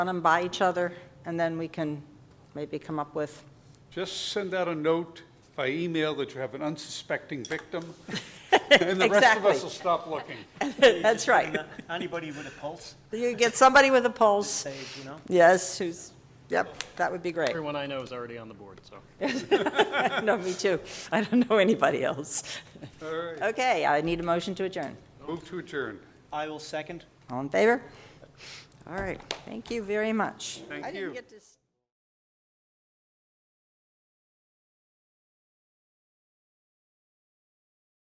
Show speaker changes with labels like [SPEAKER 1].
[SPEAKER 1] run them by each other, and then we can maybe come up with,
[SPEAKER 2] Just send out a note by email that you have an unsuspecting victim, and the rest of
[SPEAKER 1] Exactly.
[SPEAKER 2] us will stop looking.
[SPEAKER 1] that's right.
[SPEAKER 3] Anybody with a pulse,
[SPEAKER 1] You get somebody with a pulse,
[SPEAKER 3] say, you know?
[SPEAKER 1] yes, who's, yep, that would be great.
[SPEAKER 4] Everyone I know is already on the board, so.
[SPEAKER 1] No, me too. I don't know anybody else.
[SPEAKER 2] All right,
[SPEAKER 1] Okay, I need a motion to adjourn.
[SPEAKER 2] move to adjourn.
[SPEAKER 3] I will second.
[SPEAKER 1] All in favor? All right, thank you very much.
[SPEAKER 2] Thank
[SPEAKER 1] I didn't
[SPEAKER 2] you.
[SPEAKER 1] get to s-